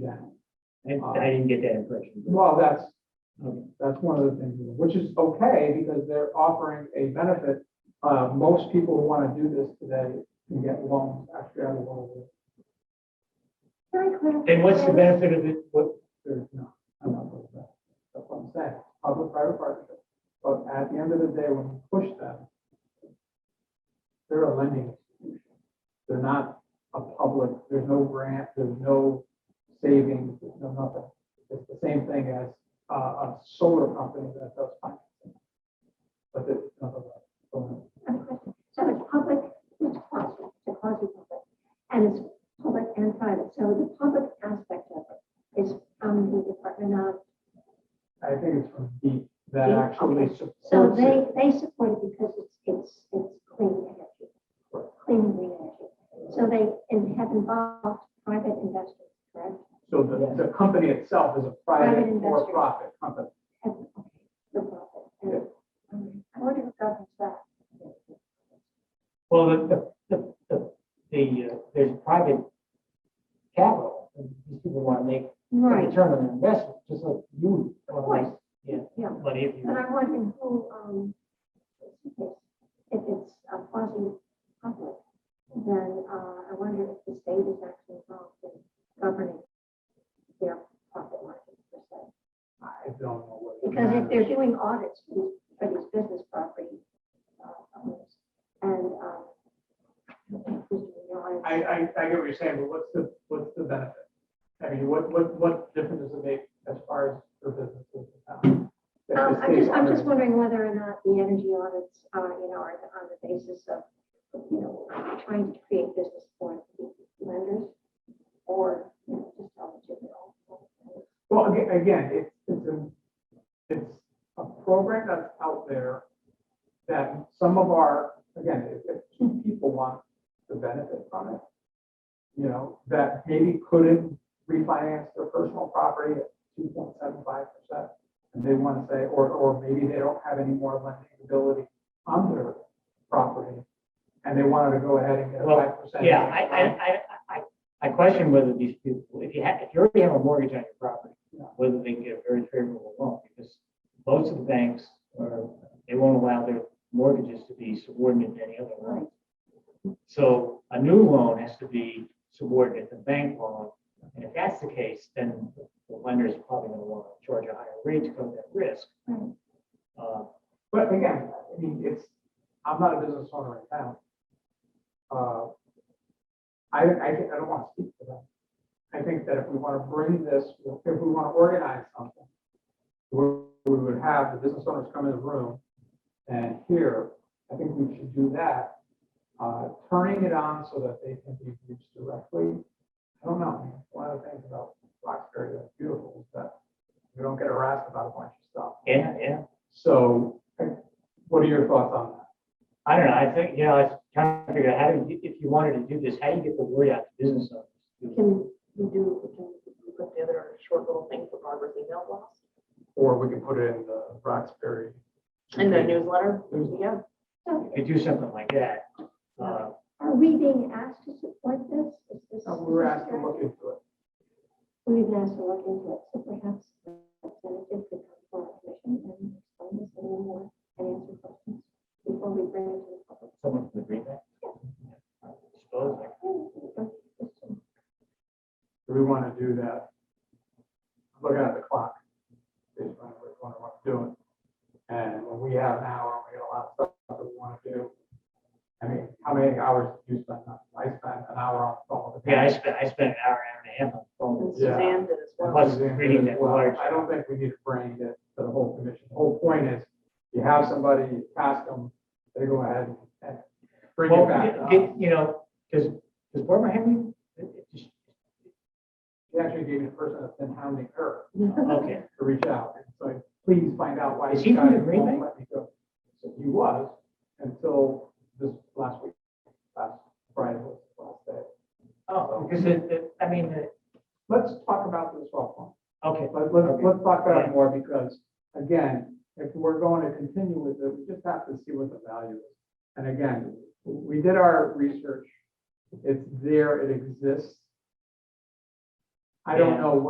that. I, I didn't get that impression. but- Well, that's, Okay. that's one of the things, which is okay, because they're offering a benefit. Uh, most people who want to do this today can get loans, actually, out of one of Very clear. And what's the benefit of it? What, there's no, I'm not with that. That's what I'm saying, public-private partnership. But at the end of the day, when you push them, they're a lending institution. They're not a public, there's no grant, there's no savings, there's no nothing. It's the same thing as uh, a solar company that does financing. But it's not a, so, So it's public, it's quasi, it's quasi-public, and it's public and private. So the public aspect of it is from the Department of, I think it's from deep that Deep, actually okay. so supports they, it. they support it because it's, it's, it's clean energy, clean green energy. So they, and have involved private investors, correct? So the, the company itself is a private Private investor. for-profit company. Have, okay, the profit. and- um, I wonder if governs that. well, the, the- the, the, the, uh, there's private capital. and These people want to make a return on their investment, just like you. want to Of course, make Yeah, yeah. money if And you, I'm wondering who, um, if it's a quasi public, then, uh, I wonder if the state is actually involved in governing their profit margin per se. I don't know what. it Because if matters. they're doing audits for these, for these business property, uh, owners, and, uh, um, I, I, I get what you're saying, but what's the, what's the benefit? I mean, what, what, what difference does it make as far as for businesses? Um, if the Um, I'm state just, I'm just wanted- wondering whether or not the energy audits, uh, you know, are on the basis of, you know, trying to create business for lenders or, you know, just tell the general. Well, again, again, it's, it's a, it's a program that's out there that some of our, again, if, if two people want to benefit from it, you know, that maybe couldn't refinance their personal property at two point seven five percent, and they want to say, or, or maybe they don't have any more lending ability on their property, and they wanted to go ahead and get a Well, five percent. yeah, I, I, I, I, I question whether these people, if you have, if you already have a mortgage on your property, Yeah. whether they can get a very favorable loan, because most of the banks are, they won't allow their mortgages to be subordinate to any other loan. Right, So a new loan has to be subordinate to bank loan. And if that's the case, then the lender is probably going to want to charge a higher rate to cover that risk. right. Uh, But again, I mean, it's, I'm not a business owner right now. Uh, I, I, think- I don't want to speak for them. I think that if we want to bring this, if we want to organize something, we we would have the business owners come in the room and here, I think we should do that. Uh, Turning it on so that they can be reached directly. I don't know, one of the things about Roxbury that's beautiful is that you don't get harassed about a bunch of stuff. yeah, yeah. So what are your thoughts on that? I don't know. I think, you know, I was trying to figure out how do you, if you wanted to do this, how do you get the word out to business owners? Can we do, we can we put together a short little thing for Barbara's email blast? Or we can put it in the Roxbury. And the newsletter, Newsletter. yeah, So If you do something like that, uh, are we being asked to support this? Is this? Uh, We were asked to look into it. We've been asked to look into it, so perhaps the representative could come for our commission and explain this a little more and answer questions before we bring it to the public. someone from the Green Bank. I Suppose, like, Do we want to do that? I'm Looking at the clock. Based on which one I want to do it. And when we have an hour, we got a lot of stuff that we want to do. I mean, how many hours do you spend? on- I spent an hour on the phone. with the yeah, I spent, I spent an hour, hour and a half on the phone. and Yeah. Suzanne did as well. Plus reading that Well, large- I don't think we need to bring it to the whole commission. The whole point is, you have somebody, you ask them, they go ahead and bring Well, it back. Uh, get- get, you know, because, because Barbara, have you, She actually gave me the person that's been hounding her uh, okay. to reach out, and so please find out why. Is you he from the guys Green won't Bay? let me go. So He was, until this last week, last Friday was the last day. Oh, because it, it- I mean, it- Let's talk about this offline. okay, Let, let's, Okay. let's talk about it Yeah. more, because again, if we're going to continue with it, we just have to see what the value is. And again, we did our research, it's there, it exists. I don't Yeah. know